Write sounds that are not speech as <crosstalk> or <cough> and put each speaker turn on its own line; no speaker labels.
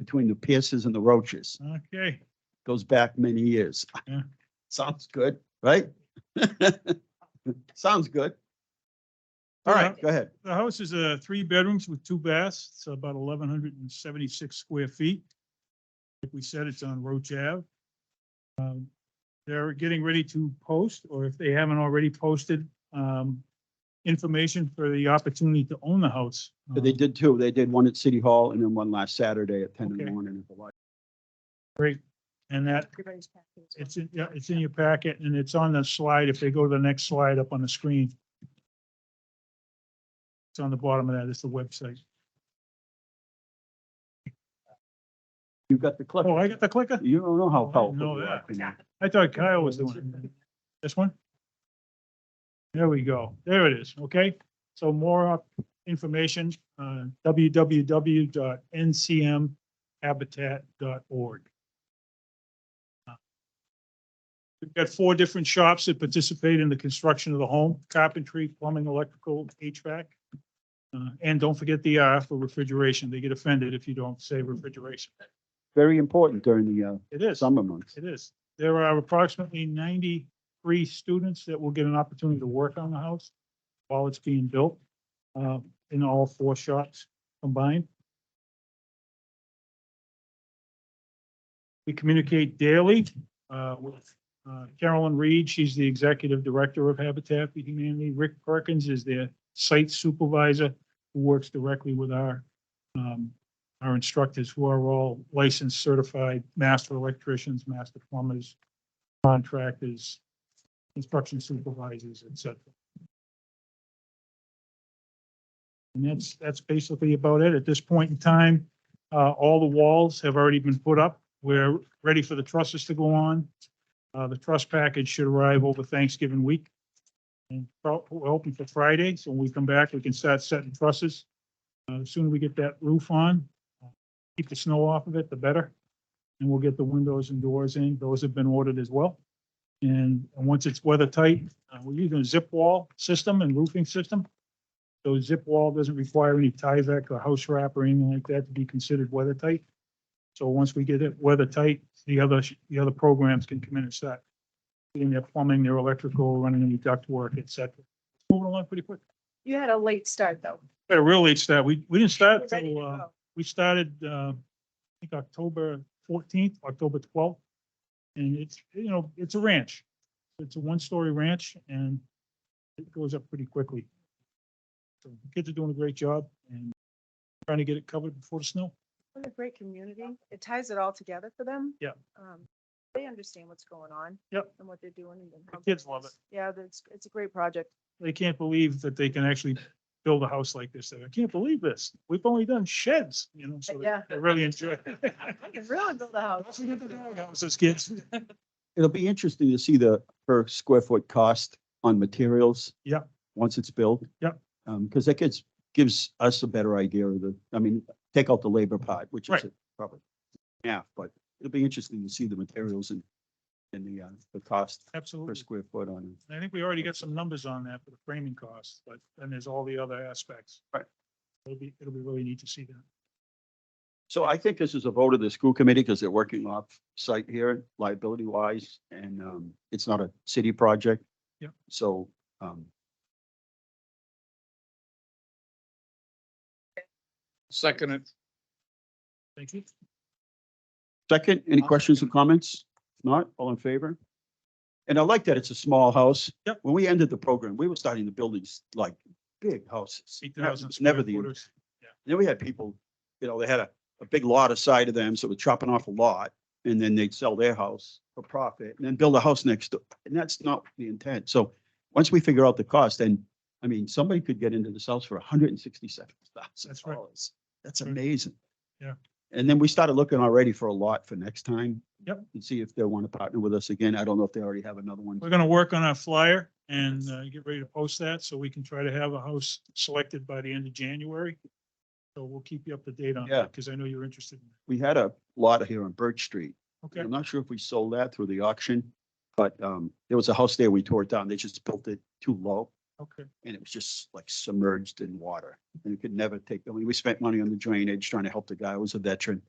between the Pierces and the Roaches.
Okay,
Goes back many years.
Yeah.
<laughs> Sounds good, right? <laughs> Sounds good. All right,
Yeah.
go ahead.
the house is uh three bedrooms with two baths. It's about eleven hundred and seventy-six square feet. Like we said, it's on Roach Ave. Um, They're getting ready to post, or if they haven't already posted, um, information for the opportunity to own the house.
They
Um,
did two. They did one at City Hall and then one last Saturday at ten in the
Okay.
morning at the light.
And that
Everybody's packet as well.
It's in, yeah, it's in your packet and it's on the slide. If they go to the next slide up on the screen. It's on the bottom of that. It's the website.
You got the clip.
Oh, I got the clicker?
You don't know
Oh,
how
I
powerful.
know
you are,
that.
can you?
I thought Kyle was doing it. This one? There we go. There it is. Okay. So more up- information, uh, www.ncmhabitat.org. We've got four different shops that participate in the construction of the home, carpentry, plumbing, electrical, HVAC. Uh, and don't forget the R for refrigeration. They get offended if you don't say refrigeration.
Very important during the uh,
It is.
summer months.
It is. There are approximately ninety-three students that will get an opportunity to work on the house while it's being built, uh, in all four shops combined. We communicate daily, uh, with uh, Carolyn Reed. She's the executive director of Habitat for Humanity. Rick Perkins is their site supervisor who works directly with our, um, our instructors who are all licensed, certified, master electricians, master plumbers, contractors, construction supervisors, et cetera. And that's, that's basically about it. At this point in time, uh, all the walls have already been put up. We're ready for the trusses to go on. Uh, the truss package should arrive over Thanksgiving week. And pro- we're hoping for Friday, so when we come back, we can start setting trusses. Uh, as soon as we get that roof on, keep the snow off of it, the better. And we'll get the windows and doors in. Those have been ordered as well. And and once it's weather tight, uh, we're using a zip wall system and roofing system. So zip wall doesn't require any Tyvek or house wrap or anything like that to be considered weather tight. So once we get it weather tight, the other, sh- the other programs can come in and start getting their plumbing, their electrical, running any duct work, et cetera. Moving along pretty quick.
You had a late start, though.
But really, it's that, we, we didn't start
We're ready
till,
to
uh,
go.
we started, uh, I think October fourteenth, October twelfth. And it's, you know, it's a ranch. It's a one-story ranch and it goes up pretty quickly. So the kids are doing a great job and trying to get it covered before the snow.
What a great community. It ties it all together for them.
Yeah.
Um, They understand what's going on.
Yep.
And what they're doing. and how
kids
good
love
is. Yeah, that's, it's a great project.
They can't believe that they can actually build a house like this. They're like, I can't believe this. We've only done sheds, you know, so
Yeah.
they really enjoy. it.
<laughs> I can really build a house.
Don't forget the doghouses, kids.
It'll be interesting to see the per square foot cost on materials.
Yep.
Once it's built.
Yep.
Um, because that gets, gives us a better idea of the, I mean, take out the labor part, which is
Right.
a- probably half, but it'll be interesting to see the materials and, and the, uh, the cost per
Absolutely.
square foot on.
And I think we already got some numbers on that for the framing costs, but then there's all the other aspects.
Right.
It'll be, it'll be really neat to see that.
So I think this is a vote of the school committee because they're working off site here liability wise and, um, it's not a city project.
Yep.
So, um,
Second it.
Thank you.
Second, any
I'll
questions or comments? If not, all in favor? And I like that it's a small house.
Yep.
When we ended the program, we were starting to build these like big houses.
Eight
That
thousand.
was Never the,
footers.
then we had people, you know, they had a, a big lot aside of them, so we're chopping off a lot. And then they'd sell their house for profit and then build a house next door. And that's not the intent. So once we figure out the cost, then, I mean, somebody could get into this house for hundred and sixty-seven thousand
That's right.
dollars. That's
Right.
amazing.
Yeah.
And then we started looking already for a lot for next time.
Yep.
And see if they want to partner with us again. I don't know if they already have another one.
We're gonna work on our flyer and uh, get ready to post that so we can try to have a house selected by the end of January. So we'll keep you up to date on
Yeah.
that because I know you're interested. in
We had a lot here on Birch Street.
that. Okay,
I'm not sure if we sold that through the auction, but um, there was a house there, we tore it down, they just built it too low.
okay.
And it was just like submerged in water and it could never take, I mean, we spent money on the drainage trying to help the guy who was a veteran.